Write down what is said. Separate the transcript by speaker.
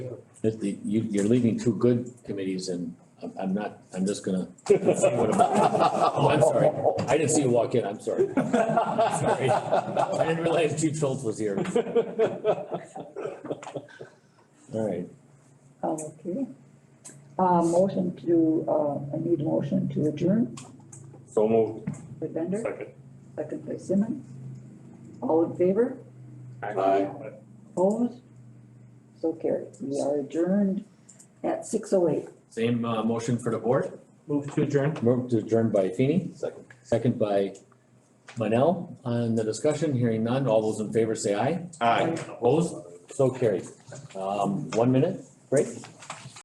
Speaker 1: That the- you, you're leaving two good committees and I'm, I'm not, I'm just gonna. Oh, I'm sorry. I didn't see you walk in, I'm sorry. Sorry. I didn't realize Chief Schultz was here. All right,
Speaker 2: Okay. Uh, motion to, uh, I need a motion to adjourn
Speaker 3: So moved,
Speaker 2: by Bender,
Speaker 3: second.
Speaker 2: second by Simmons. All in favor? Opposed? So carried. We are adjourned at six oh eight.
Speaker 1: same, uh, motion for the board.
Speaker 4: Move to adjourn.
Speaker 1: Move to adjourn by Feeny,
Speaker 4: Second.
Speaker 1: second by Manel. On the discussion, hearing none, all those in favor say aye.
Speaker 3: Aye.
Speaker 1: Opposed? So carried. Um, one minute break.